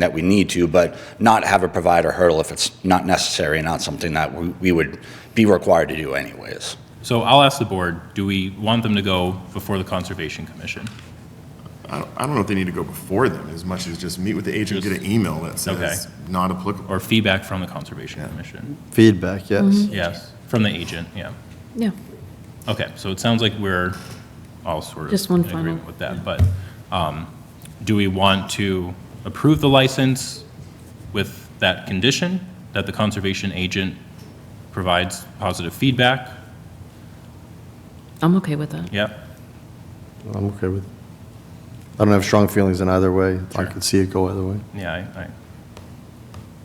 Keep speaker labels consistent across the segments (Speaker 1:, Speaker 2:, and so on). Speaker 1: that we need to, but not have a provider hurdle if it's not necessary and not something that we we would be required to do anyways.
Speaker 2: So I'll ask the board, do we want them to go before the Conservation Commission?
Speaker 3: I don't, I don't know if they need to go before them as much as just meet with the agent, get an email that says not applicable.
Speaker 2: Or feedback from the Conservation
Speaker 3: Yeah.
Speaker 2: Commission?
Speaker 4: Feedback, yes.
Speaker 2: Yes, from the agent, yeah.
Speaker 5: Yeah,
Speaker 2: Okay, so it sounds like we're all sort of.
Speaker 5: Just one
Speaker 2: in agreement
Speaker 5: final-
Speaker 2: With that, but um, do we want to approve the license with that condition? That the conservation agent provides positive feedback?
Speaker 5: I'm okay with that.
Speaker 2: Yep,
Speaker 4: I'm okay with, I don't have strong feelings in either way. I
Speaker 2: Sure.
Speaker 4: could see it go either way.
Speaker 2: yeah,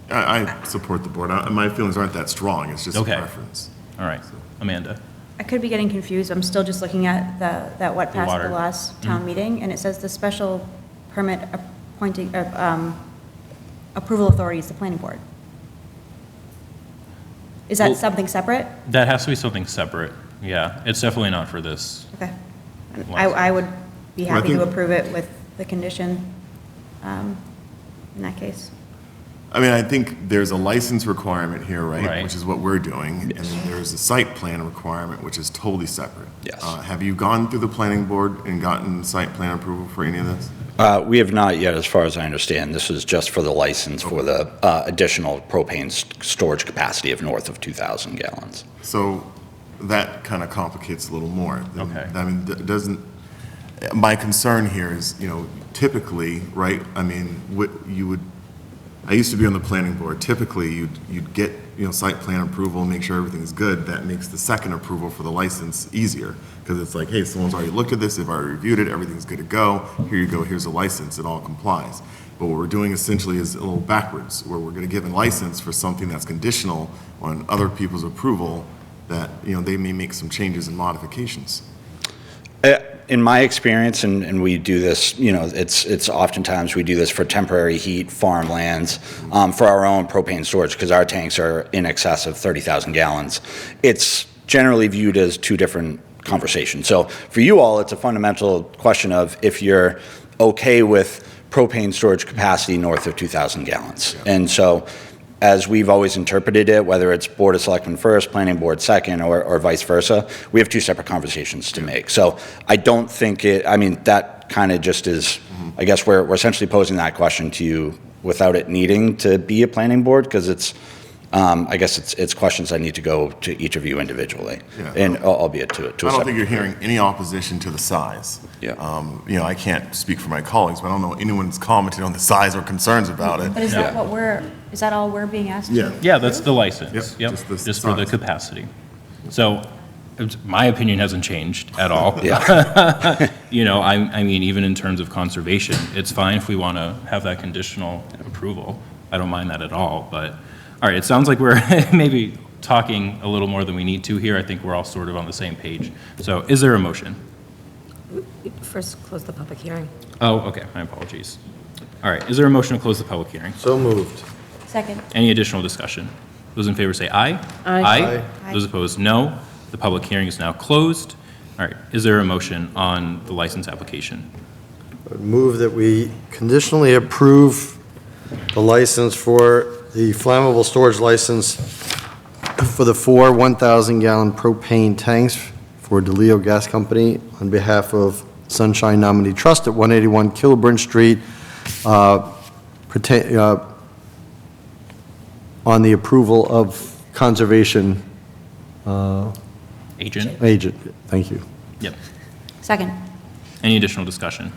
Speaker 2: I, I,
Speaker 3: I, I support the board. I- My feelings aren't that strong. It's just a
Speaker 2: Okay.
Speaker 3: preference.
Speaker 2: all right. Amanda?
Speaker 6: I could be getting confused, I'm still just looking at the, that what
Speaker 2: The
Speaker 6: passed at
Speaker 2: water. Mm-hmm.
Speaker 6: the last town meeting, and it says the special permit appointing, uh, um, approval authority is the planning board. Is
Speaker 2: Well-
Speaker 6: that something separate?
Speaker 2: That has to be something separate, yeah. It's definitely not for this.
Speaker 6: Okay. I, I would be
Speaker 3: Well, I
Speaker 6: happy to
Speaker 3: think-
Speaker 6: approve it with the condition, um, in that case.
Speaker 3: I mean, I think there's a license requirement here,
Speaker 2: Right.
Speaker 3: right? Which is what we're doing. And then there's a site plan requirement, which is totally separate.
Speaker 1: Yes.
Speaker 3: Uh, Have you gone through the planning board and gotten site plan approval for any of this?
Speaker 1: Uh, We have not yet, as far as I understand. This is just for the license for the uh, additional propane s- storage capacity of north of 2,000 gallons.
Speaker 3: So that kind of complicates a little more. than-
Speaker 2: Okay.
Speaker 3: I mean, th- doesn't, my concern here is, you know, typically, right, I mean, what you would, I used to be on the planning board, typically, you'd, you'd get, you know, site plan approval, make sure everything's good, that makes the second approval for the license easier, because it's like, hey, someone's already looked at this, they've already reviewed it, everything's good to go, here you go, here's a license, it all complies. But what we're doing essentially is a little backwards, where we're gonna give a license for something that's conditional on other people's approval, that, you know, they may make some changes and modifications.
Speaker 1: Uh, In my experience, and, and we do this, you know, it's, it's oftentimes we do this for temporary heat, farmlands, um, for our own propane storage, because our tanks are in excess of 30,000 gallons. It's generally viewed as two different conversations. So for you all, it's a fundamental question of if you're okay with propane storage capacity north of 2,000 gallons. And so as we've always interpreted it, whether it's Board of Selectmen first, Planning Board second, or, or vice versa, we have two separate conversations to make. So I don't think it, I mean, that kind of just is,
Speaker 3: Mm-hmm.
Speaker 1: I guess we're, we're essentially posing that question to you without it needing to be a Planning Board, because it's, um, I guess it's, it's questions I need to go to each of you individually,
Speaker 3: Yeah.
Speaker 1: and al- albeit to, to a
Speaker 3: I don't think
Speaker 1: separate.
Speaker 3: you're hearing any opposition to the size.
Speaker 1: Yeah.
Speaker 3: Um, You know, I can't speak for my colleagues, but I don't know anyone's commented on the size or concerns about
Speaker 6: But
Speaker 3: it.
Speaker 6: is that
Speaker 2: Yeah.
Speaker 6: what we're, is that all we're being asked to do?
Speaker 3: Yeah.
Speaker 2: Yeah, that's the license,
Speaker 3: Yep,
Speaker 2: yep,
Speaker 3: just the
Speaker 2: just for the
Speaker 3: size.
Speaker 2: capacity. So, it's- my opinion hasn't changed at all.
Speaker 1: Yeah,
Speaker 2: You know, I, I mean, even in terms of conservation, it's fine if we want to have that conditional approval. I don't mind that at all, but, all right, it sounds like we're maybe talking a little more than we need to here. I think we're all sort of on the same page. So is there a motion?
Speaker 7: First, close the public hearing.
Speaker 2: Oh, okay, my apologies. All right, is there a motion to close the public hearing?
Speaker 4: So moved.
Speaker 6: Second.
Speaker 2: Any additional discussion? Those in favor say aye.
Speaker 5: Aye.
Speaker 2: Aye. Those opposed, no. The public hearing is now closed. All right, is there a motion on the license application?
Speaker 4: Move that we conditionally approve the license for the flammable storage license for the four 1,000-gallon propane tanks for DeLeo Gas Company on behalf of Sunshine Nominee Trust at 181 Kilburn Street, uh, pertain- uh, on the approval of conservation uh,
Speaker 2: Agent?
Speaker 4: agent. Thank you.
Speaker 2: Yep.
Speaker 6: Second.
Speaker 2: Any additional discussion?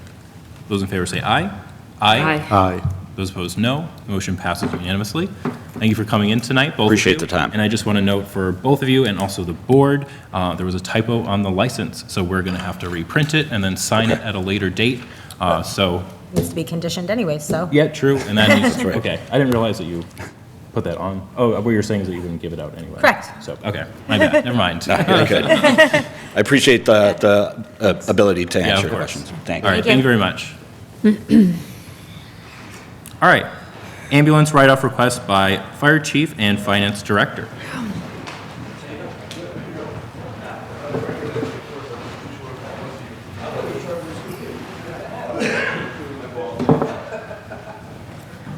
Speaker 2: Those in favor say aye. Aye.
Speaker 4: Aye.
Speaker 2: Those opposed, no. The Motion passes unanimously. Thank you for coming in tonight, both of you.
Speaker 1: Appreciate the time.
Speaker 2: And I just want to note for both of you and also the board, uh, there was a typo on the license, so we're going to have to reprint it and then sign it at a later date. Uh, So
Speaker 7: Needs to be conditioned anyway, so.
Speaker 2: Yeah, true. And that needs, okay, I didn't realize that you put that on. Oh, what you're saying is that you didn't give it out anyway.
Speaker 7: Correct.
Speaker 2: So, okay, my bad, never mind. Yeah,
Speaker 1: Okay, good. I appreciate the, the uh, ability to
Speaker 2: of
Speaker 1: answer
Speaker 2: course.
Speaker 1: questions. Thank
Speaker 2: All
Speaker 1: you.
Speaker 2: right, thank you very much. All right, ambulance write-off request by Fire Chief and Finance Director.